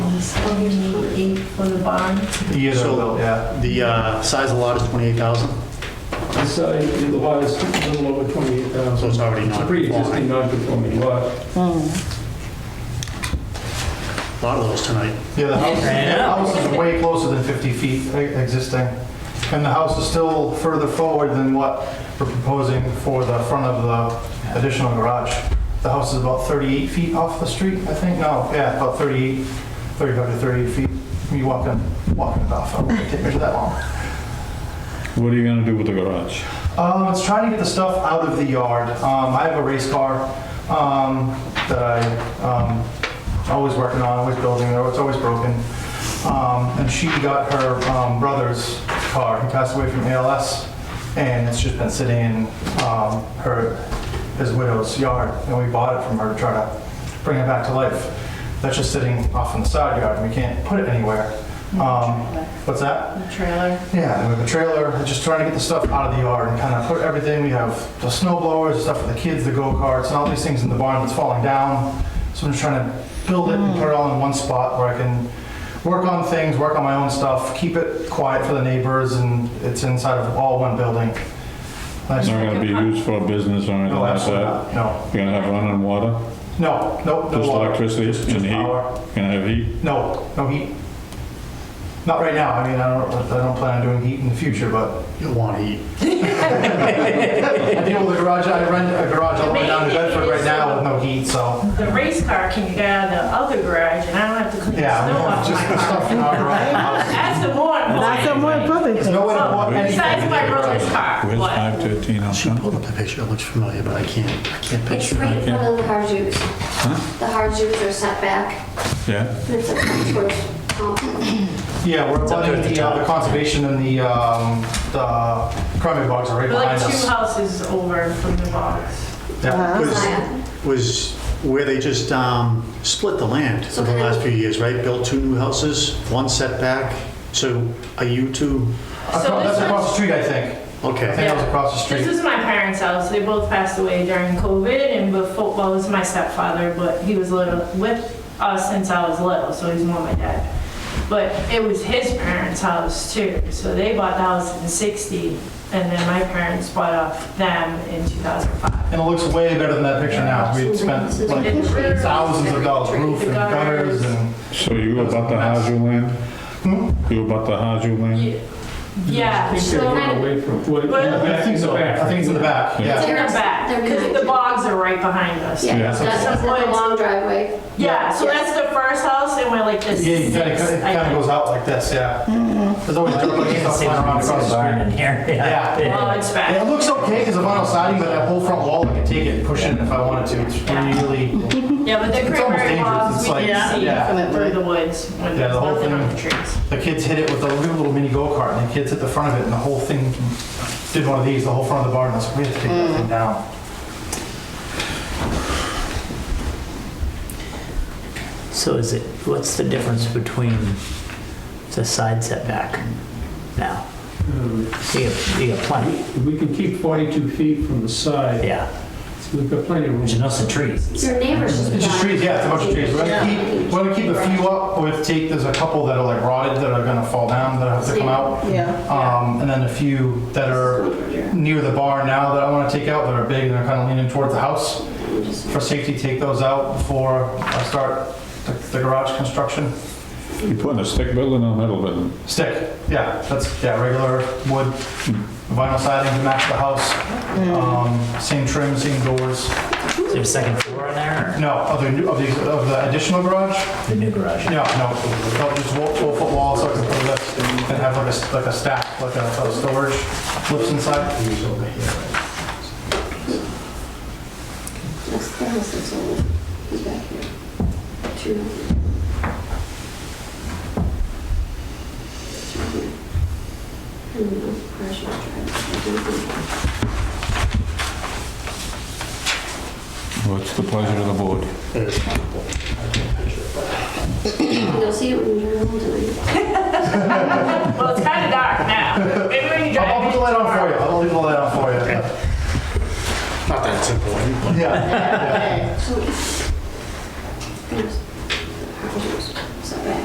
What do you need, eight for the barn? The, So, so, yeah, the uh, size of the lot is 28,000, this side, the lot is a little over 28,000. so it's already It's a not. pre-existing non-conforming lot. A lot of those tonight. Yeah, the house, Yeah. the house is way closer than 50 feet e- existing. And the house is still further forward than what we're proposing for the front of the additional garage. The house is about 38 feet off the street, I think, no, yeah, about 38, 35 to 38 feet. You walking, walking it off, it wouldn't take me that long. What are you gonna do with the garage? Um, it's trying to get the stuff out of the yard. Um, I have a race car um, that I um, always working on, always building. It's always broken. Um, and she got her um, brother's car. He passed away from ALS, and it's just been sitting in um, her his widow's yard. And we bought it from her to try to bring it back to life. That's just sitting off in the side yard, and we can't put it anywhere. Um, what's that? The trailer? Yeah, we have a trailer, just trying to get the stuff out of the yard and kind of put everything, we have the snow blowers, stuff for the kids, the go-karts, and all these things in the barn that's falling down. So I'm just trying to build it and put it all in one spot where I can work on things, work on my own stuff, keep it quiet for the neighbors, and it's inside of all one building. Nice. It's not gonna be used for a business or anything No, like absolutely not, that? no, You're gonna have running water, no, no, no just water. electricity Just- just and heat? power. You're gonna have heat? No, no heat. Not right now, I mean, I don't, I don't plan on doing heat in the future, but You'll want heat. I deal with a garage, I rent a garage all the way down to Bedford right now with no heat, so, The race car can get out of the other garage, and I don't have to clean yeah, we the have snow just off the my car. stuff in our garage. That's the more That's important. a more important There's thing. no way to put anything. Besides my brother's car, Where's what? 513 She Elm pulled up the picture, it looks familiar, but I can't, I can't It's picture right it. in front of the hard Jews. The hard Jews are set back, Yeah, and it's a towards complex. Yeah, we're up there at letting the the, uh, top. the conservation and the, um, the crumbie bogs are right We're like behind two Uh-huh. us. houses over from the box. Yeah. Zion. Was, was where they just um, split the land So over the kind of- last few years, right? Built two new houses, one setback, so are you two, So this Across- That's across one's- the street, I think. I okay. think that was across the This street. is my parents' house. They both passed away during COVID, and before, well, it was my stepfather, but he was little with us since I was little, so he's more my dad. But it was his parents' house too, so they bought the house in '60, and then my parents bought off them in 2005. And it looks way better than that picture now. We'd spent like thousands of dollars, roof and gutters and, so you about the Hazu land? Hmm? You about the Hazu Mm-hmm. land? Ye- Yeah, I think they're so going away from, well, in the Well, back- I think in the so, back. I think it's in the back, Yeah. yeah. in the back, because the bogs are right behind us. Yeah, Yeah. that's that's the long driveway. Yeah, so Yeah. that's the first house, and we're like this. Yeah, it kinda, sixth, it I kinda think. goes out like this, yeah. There's always dirt You like can stuff flying around across the street. Yeah. Well, it's back. Yeah, It looks okay because of vinyl siding, but that whole front wall, I could take it and push it if I wanted to. It's really, Yeah, but the It's almost cranberry dangerous. bogs, It's we like- can see yeah. through the woods when Yeah, there's the whole nothing on the thing. trees. the kids hit it with a little little mini go-kart and the kids hit the front of it and the whole thing, did one of these, the whole front of the barn, I was like, we have to take that thing down. So is it, what's the difference between the side setback now? Um, You got, you got plenty, If we can keep 42 feet from the side, yeah. we've got plenty of room. There's lots of trees. Your neighbors just. It's just behind. trees, yeah, it's a bunch of trees. We're gonna keep, we're gonna keep a few up, we have to take, there's a couple that are like rotted that are gonna fall down that have to come out. Yeah. Um, and then a few that are near the barn now that I wanna take out that are big and are kinda leaning towards the house. For safety, take those out before I start the the garage construction. You putting a stick building or a metal building? Stick, yeah, that's, yeah, regular wood, vinyl siding to match the house. Um, Same trim, same doors. Is there a second floor in there No, of the, new- of the, of the additional garage? or the new garage? No, no, no, just wall- twelve foot wall, so I can put lift and have like a, s- like a stack, like a, a storage lifts inside. That's the house that's old. He's back here. Two. I don't know, Marshall Drive. What's the pleasure of the board? You'll see it when you're home tonight. Well, it's kind of dark now. Maybe when you drive. I'll, I'll put the light on for you, I'll leave the light on for you. Not that it's important, but- Yeah. So. Set back.